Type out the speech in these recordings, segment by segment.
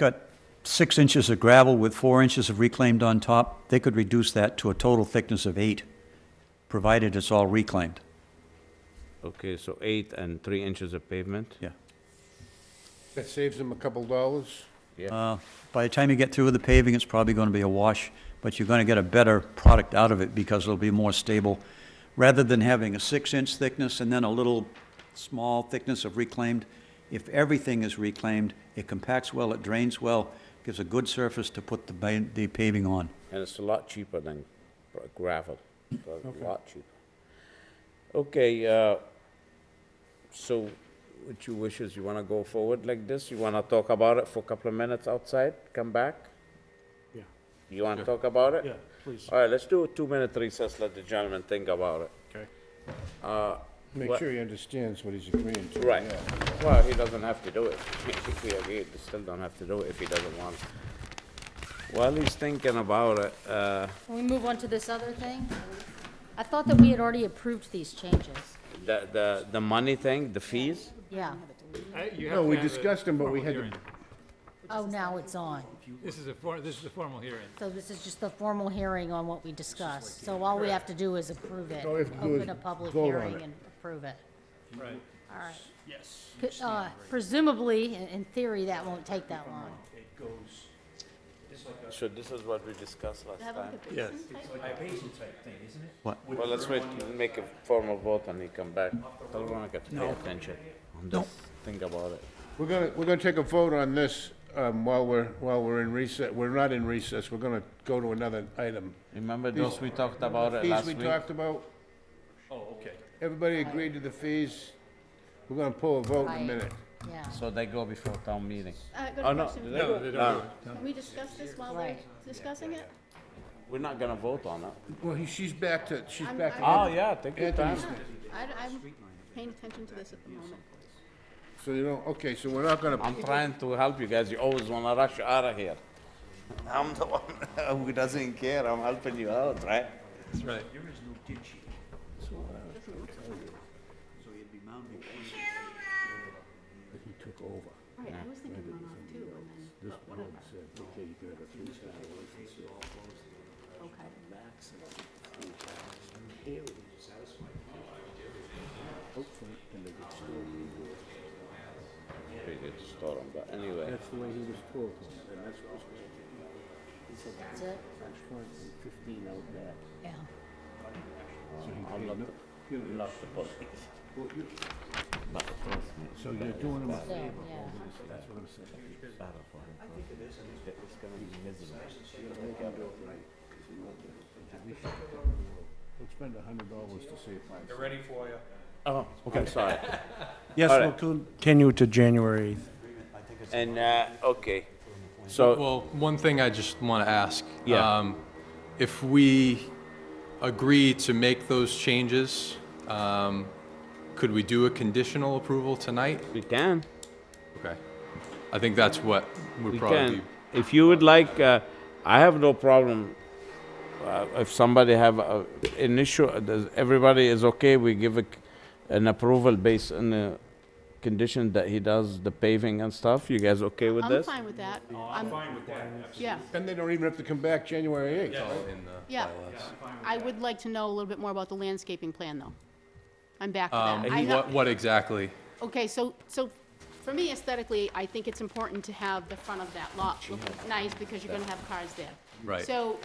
got six inches of gravel with four inches of reclaimed on top, they could reduce that to a total thickness of eight, provided it's all reclaimed, Okay, so eight and three inches of pavement? yeah. That saves them a couple dollars. Uh, By the time you get through with the paving, it's probably gonna be a wash, but you're gonna get a better product out of it because it'll be more stable. Rather than having a six-inch thickness and then a little small thickness of reclaimed, if everything is reclaimed, it compacts well, it drains well, gives a good surface to put the ba- the paving on. And it's a lot cheaper than gr- gravel, It's a lot cheaper. Okay, uh, so what you wish is you wanna go forward like this? You wanna talk about it for a couple of minutes outside, come back? Yeah. You wanna talk about it? Yeah, please. All right, let's do a two-minute recess, let the gentleman think about it. Okay. Make What- sure he understands what he's agreeing to. Right. yeah. Well, he doesn't have to do it. If we agree, he still don't have to do it if he doesn't want. While he's thinking about it, uh, Can we move on to this other thing? I thought that we had already approved these changes. the, the, the money thing, the fees? Yeah. No, we discussed them, but we had to- Oh, now it's on. This is a, for- this is a formal hearing. So this is just the formal hearing on what we discussed. So all we have to do is approve it. All we have to do is Open a public vote on hearing it. and approve it. Right. All right. Yes. Uh, Presumably, in- in theory, that won't take that long. It goes, So this is what we discussed last time. yes. Well, let's wait, make a formal vote and he come back. Tell Veronica to pay attention. No. Think about it. We're gonna, we're gonna take a vote on this, um, while we're, while we're in recess, we're not in recess, we're gonna go to another item. Remember those we talked about it Fees last we week? talked about, Oh, okay. everybody agreed to the fees, we're gonna pull a vote in a Right. minute. Yeah. So they go before town meeting. I Oh, got a no, question. they go- no, Can we discuss this while we're Right. discussing it? we're not gonna vote on it. Well, he, she's back to, she's back to. Oh, yeah, take your time. Anthony's. I, I'm paying attention to this at the moment. So you don't, okay, so we're not gonna, I'm trying to help you guys. You always wanna rush out of here. I'm the one who doesn't care. I'm helping you out, right? That's right. Right, I was thinking runoff too, and then, but whatever. Okay. Pretty good story, but anyway. That's it? Yeah. I'm not, the- not the police. But trust me, so you're doing them, So, yeah. it's better for him. It's gonna be miserable. we'll spend a hundred dollars to save five. They're ready for you. Oh, okay. I'm sorry. Yes, All we'll right. continue to January 8th. And, uh, okay, so, Well, one thing I just want to ask. Yeah. um, If we agree to make those changes, um, could we do a conditional approval tonight? we can, Okay. I think that's what we would probably can. be. If you would like, uh, I have no problem. Uh, if somebody have a, an issue, uh, does, everybody is okay, we give a, c- an approval based on the condition that he does the paving and stuff. You guys okay with I'm this? fine with that. Oh, I'm fine with that. Yeah, Then they don't even have to come back January eighth. yeah. I would like to know a little bit more about the landscaping plan, though. I'm back to Um, that. I ha- What, what exactly? Okay, so, so for me aesthetically, I think it's important to have the front of that lot look nice because you're gonna have cars there. Right. So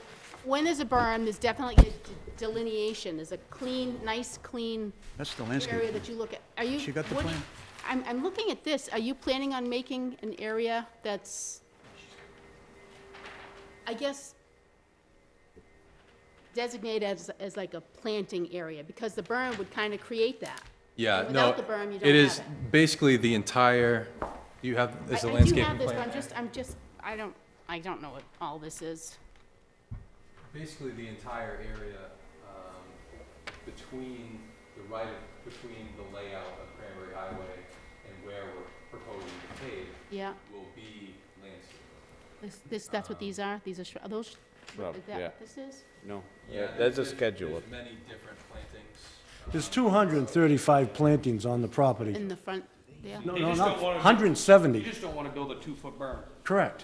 when there's a berm, there's definitely a d- delineation, there's a clean, nice, clean That's the area landscape. that you look at. Are you? She got the what do plan. you- I'm, I'm looking at this. Are you planning on making an area that's, I guess, designated as, as like a planting area? Because the berm would kind of create that. Yeah, And no. Without the berm, you don't have It is it. basically the entire, you have, is I- a landscaping I do have this, but plan. I'm just, I'm just, I don't, I don't know what all this is. Basically, the entire area um, between the right, of- between the layout of Cranberry Highway and where we're proposing to pave Yeah, will be landscaped. this, this, that's what these are? These are, shr- are those, sh- Shrub, is that yeah. what this is? No, that's a schedule. There's many different plantings. There's 235 plantings on the property. In the front, yeah? No, They no, just not, don't wanna- You 170, just don't want to build a two-foot berm. correct.